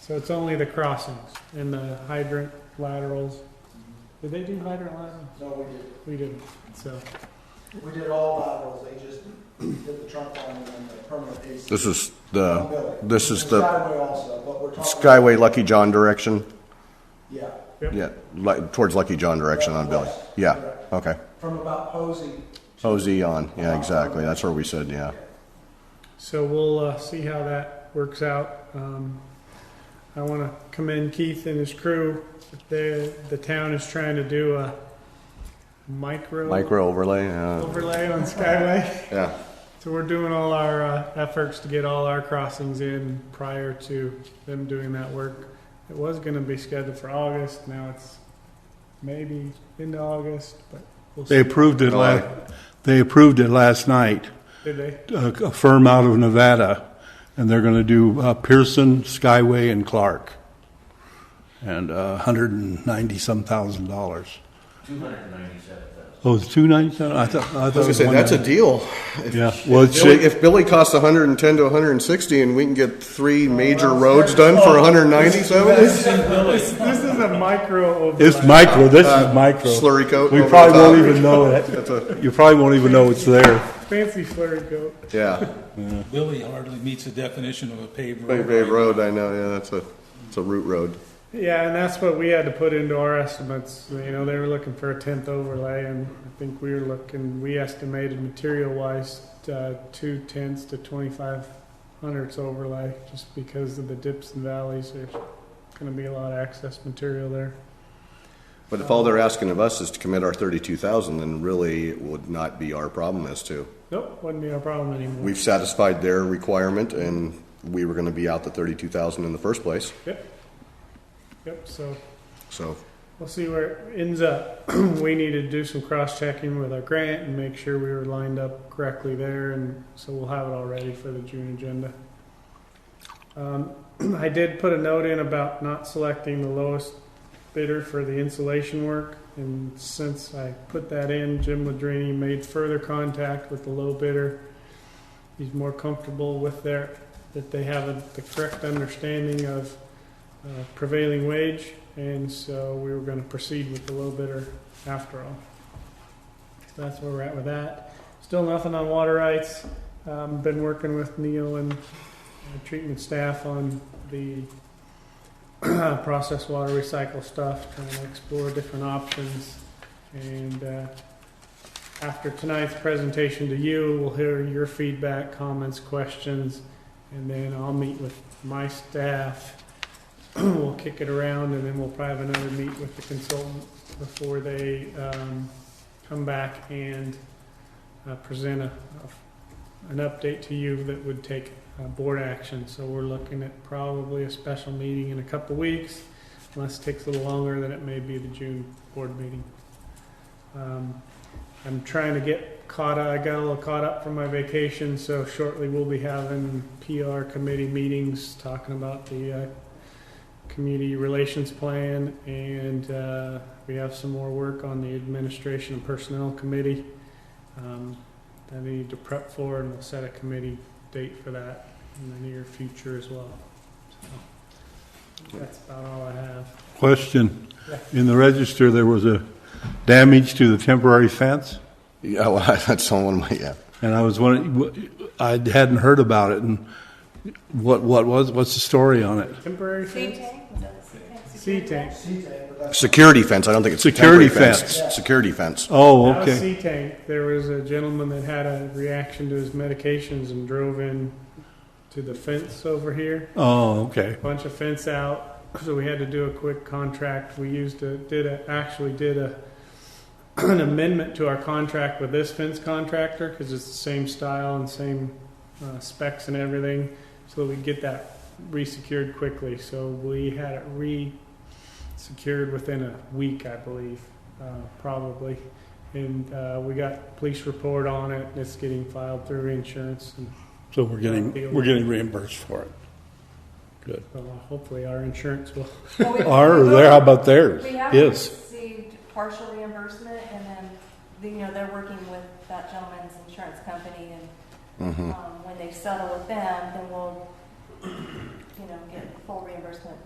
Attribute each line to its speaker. Speaker 1: So it's only the crossings and the hydrant laterals. Did they do hydrant laterals?
Speaker 2: No, we did,
Speaker 1: We didn't, so.
Speaker 2: we did all laterals, they just did the trunk line and then the permanent piece.
Speaker 3: This is
Speaker 2: on
Speaker 3: the
Speaker 2: building.
Speaker 3: this is
Speaker 2: And
Speaker 3: the-
Speaker 2: Skyway also, but we're talking.
Speaker 3: Skyway Lucky John direction.
Speaker 2: Yeah,
Speaker 3: Yeah, li- towards Lucky John direction on Billy. Yeah, okay.
Speaker 2: from about Posey. to-
Speaker 3: OZ on. Yeah, exactly. That's where we said, yeah.
Speaker 1: So we'll uh, see how that works out. Um, I want to commend Keith and his crew. The the town is trying to do a micro,
Speaker 3: Micro overlay. Yeah.
Speaker 1: overlay on Skyway.
Speaker 3: yeah.
Speaker 1: So we're doing all our uh, efforts to get all our crossings in prior to them doing that work. It was going to be scheduled for August. Now it's maybe into August, but we'll
Speaker 4: They
Speaker 1: see.
Speaker 4: approved it last, they approved it last night,
Speaker 1: Did they?
Speaker 4: a a firm out of Nevada, and they're going to do uh, Pearson, Skyway, and Clark. And a hundred and ninety-some thousand dollars. Two hundred and ninety-seven thousand. Oh, it's two ninety-seven? I thought, I thought. it was one ninety-
Speaker 3: deal. If,
Speaker 4: Yeah, well, it's- Billy-
Speaker 3: if Billy costs 110 to 160, and we can get three major roads done for 197,
Speaker 1: This, this is a micro overlay.
Speaker 4: It's micro, this is micro.
Speaker 3: slurry coat
Speaker 4: We
Speaker 3: over
Speaker 4: probably
Speaker 3: the top.
Speaker 4: won't even know
Speaker 3: That's a-
Speaker 4: it. You probably won't even know it's there.
Speaker 1: fancy flurry coat.
Speaker 3: yeah,
Speaker 5: Billy hardly meets the definition of a paved
Speaker 3: Bay
Speaker 5: road.
Speaker 3: Bay Road. I know. Yeah, that's a it's a root road.
Speaker 1: Yeah, and that's what we had to put into our estimates. You know, they were looking for a tenth overlay, and I think we were looking, we estimated material wise, uh, two tenths to twenty-five hundredths overlay, just because of the dips and valleys, there's gonna be a lot of excess material there.
Speaker 3: But if all they're asking of us is to commit our 32,000, then really it would not be our problem as to.
Speaker 1: Nope, wouldn't be our problem anymore.
Speaker 3: We've satisfied their requirement, and we were going to be out the 32,000 in the first place.
Speaker 1: Yep. Yep, so
Speaker 3: So
Speaker 1: We'll see where it ends up. we need to do some cross checking with our grant and make sure we were lined up correctly there, and so we'll have it all ready for the June agenda. Um, I did put a note in about not selecting the lowest bidder for the insulation work, and since I put that in, Jim Ladrini made further contact with the low bidder. He's more comfortable with their that they have a, the correct understanding of uh, prevailing wage, and so we were going to proceed with the low bidder after all. So that's where we're at with that. Still nothing on water rights. Um, been working with Neil and uh, treatment staff on the process water recycle stuff, trying to explore different options. And uh, after tonight's presentation to you, we'll hear your feedback, comments, questions, and then I'll meet with my staff we'll kick it around and then we'll probably have another meet with the consultant before they um, come back and uh, present a, an update to you that would take uh, board action. So we're looking at probably a special meeting in a couple weeks, unless it takes a little longer than it may be the June board meeting. Um, I'm trying to get caught up, I got a little caught up from my vacation, so shortly we'll be having PR committee meetings talking about the uh, community relations plan, and uh, we have some more work on the administration and personnel committee um, that I need to prep for, and we'll set a committee date for that in the near future as well. So, That's about all I have.
Speaker 4: Question. In the register, there was a damage to the temporary fence,
Speaker 3: yeah, well, that's on one of my yeah.
Speaker 4: and I was wondering, I hadn't heard about it, and what, what was, what's the story on it?
Speaker 1: Temporary
Speaker 6: Sea
Speaker 1: fence?
Speaker 6: tank? Was that a sea tank?
Speaker 1: Sea tank.
Speaker 2: C-Tech, but that's
Speaker 3: Security fence. I don't think it's a
Speaker 4: Security
Speaker 3: temporary
Speaker 4: fence.
Speaker 3: It's Security fence.
Speaker 4: Oh,
Speaker 1: That was
Speaker 4: okay.
Speaker 1: sea tank. There was a gentleman that had a reaction to his medications and drove in to the fence over here.
Speaker 4: Oh, okay.
Speaker 1: bunch of fence out, so we had to do a quick contract. We used a, did a, actually did a, an amendment to our contract with this fence contractor because it's the same style and same uh, specs and everything, so that we get that resecured quickly. So we had it re-secured within a week, I believe, uh, probably. And uh, we got police report on it. and It's getting filed through insurance, and
Speaker 4: So we're getting, we're getting reimbursed for it. Good.
Speaker 1: uh, hopefully our insurance will
Speaker 6: Well, we-
Speaker 4: Or there, how about theirs?
Speaker 6: We have
Speaker 4: Yes.
Speaker 6: received partial reimbursement and then, the- you know, they're working with that gentleman's
Speaker 3: Mm-hmm.
Speaker 4: Hmm.
Speaker 6: insurance company and um, when they settle with them, then we'll you know, get full reimbursement